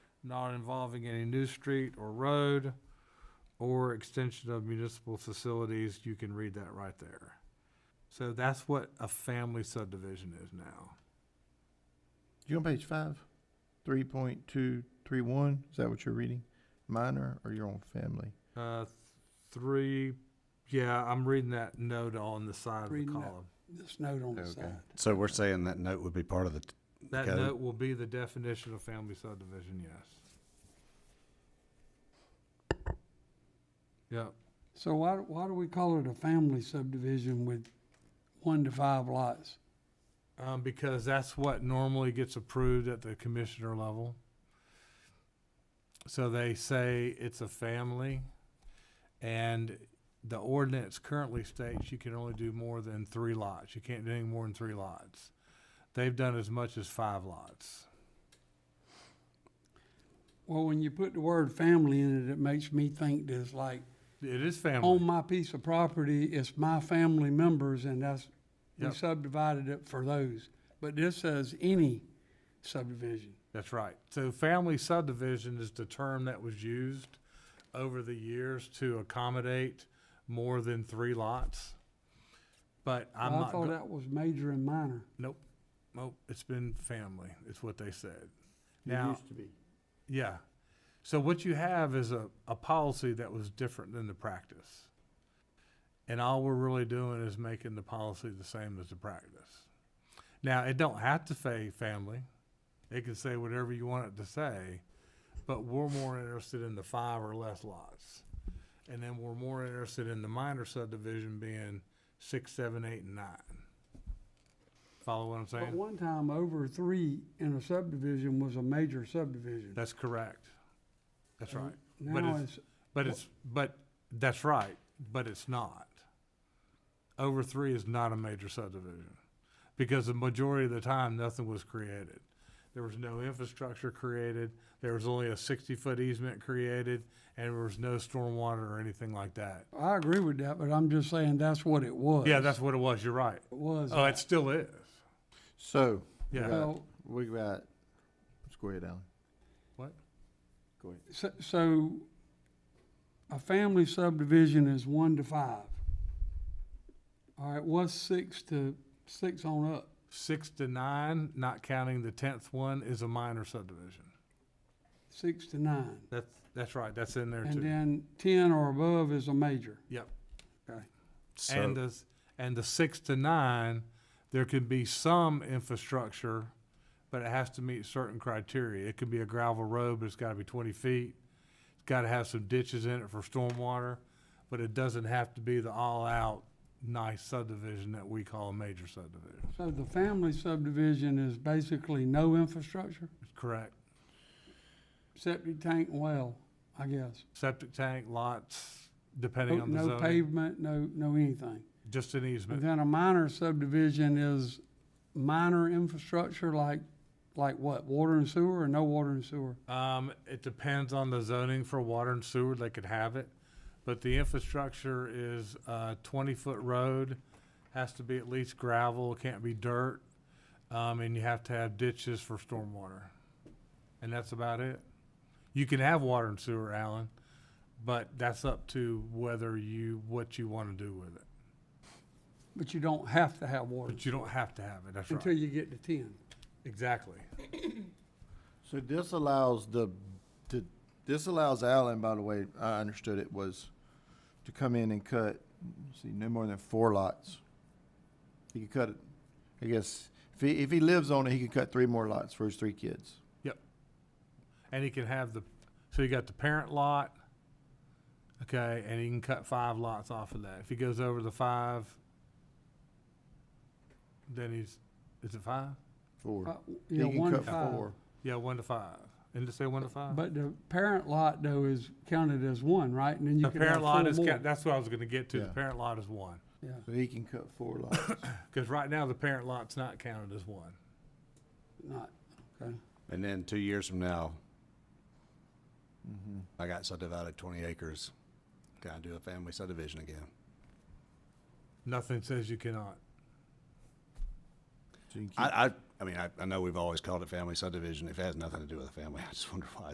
not involving any new street or road or extension of municipal facilities, you can read that right there. So that's what a family subdivision is now. You on page five? Three point two three one, is that what you're reading? Minor or your own family? Uh, three, yeah, I'm reading that note on the side of the Reading that. column. this note on the Okay. side. So we're saying that note would be part of the, t- That Okay. note will be the definition of family subdivision, yes. Yep, So why, why do we call it a family subdivision with one to five lots? um, because that's what normally gets approved at the commissioner level. So they say it's a family, and the ordinance currently states you can only do more than three lots. You can't do any more than three lots. They've done as much as five lots. Well, when you put the word family in it, it makes me think there's like, It is family. on my piece of property, it's my family members and that's, we Yep. subdivided it for those. But this says any subdivision. That's right. So family subdivision is the term that was used over the years to accommodate more than three lots. But I'm I not, thought go- that was major and minor. nope, nope, it's been family, it's what they said. Now, to be. yeah. So what you have is a, a policy that was different than the practice. And all we're really doing is making the policy the same as the practice. Now, it don't have to say family. It can say whatever you want it to say, but we're more interested in the five or less lots. And then we're more interested in the minor subdivision being six, seven, eight, and nine. Follow what I'm But saying? one time, over three in a subdivision was a major subdivision. That's correct. That's right. but Now it's- it's But it's, but, that's right, but it's not. Over three is not a major subdivision, because the majority of the time, nothing was created. There was no infrastructure created, there was only a sixty-foot easement created, and there was no stormwater or anything like that. I agree with that, but I'm just saying that's what it was. Yeah, that's what it was, you're right. It was. Oh, it still is, So, yeah. Well, we got, let's go ahead, Alan. What? Go ahead. so, so a family subdivision is one to five. All right, what's six to, six on up? Six to nine, not counting the tenth one, is a minor subdivision. Six to nine. That's, that's right, that's in there And too. then ten or above is a major. Yep. And so, the, s- and the six to nine, there can be some infrastructure, but it has to meet certain criteria. It could be a gravel road, but it's gotta be twenty feet. It's gotta have some ditches in it for stormwater, but it doesn't have to be the all-out nice subdivision that we call a major subdivision. So the family subdivision is basically no infrastructure, Correct. septic tank, well, I guess. Septic tank, lots, depending on the Oh, No zoning, pavement, no, no anything. just an And easement. then a minor subdivision is minor infrastructure like, like what, water and sewer or no water and sewer? Um, it depends on the zoning for water and sewer, they could have it, but the infrastructure is a twenty-foot road, has to be at least gravel, can't be dirt, um, and you have to have ditches for stormwater. And that's about it. You can have water and sewer, Alan, but that's up to whether you, what you wanna do with it. But you don't have to have water But you don't have to have it, that's until right. you get to ten. Exactly. So this allows the, the, this allows Alan, by the way, I understood it was to come in and cut, let's see, no more than four lots. He could cut it, I guess, if he, if he lives on it, he could cut three more lots for his three kids. And he can have the, so you got the parent lot, okay, and he can cut five lots off of that. If he goes over the five, then he's, is it five? Four. Uh, Yeah, He can one to cut five. four. Yeah, one to five. Didn't it say one to five? But the parent lot though is counted as one, right? And then you The can have parent lot four is, more. ca- that's what I was gonna get to. The Yeah. parent lot is one. Yeah, So he can cut four lots. Mm-hmm. Cause right now, the parent lot's not counted as one. not, okay. and then two years from now, Mhm. I got subdivided twenty acres. Gotta do a family subdivision again. Nothing says you cannot. So you can keep- I, I, I mean, I, I know we've always called it family subdivision. If it has nothing to do with a family, I just wonder why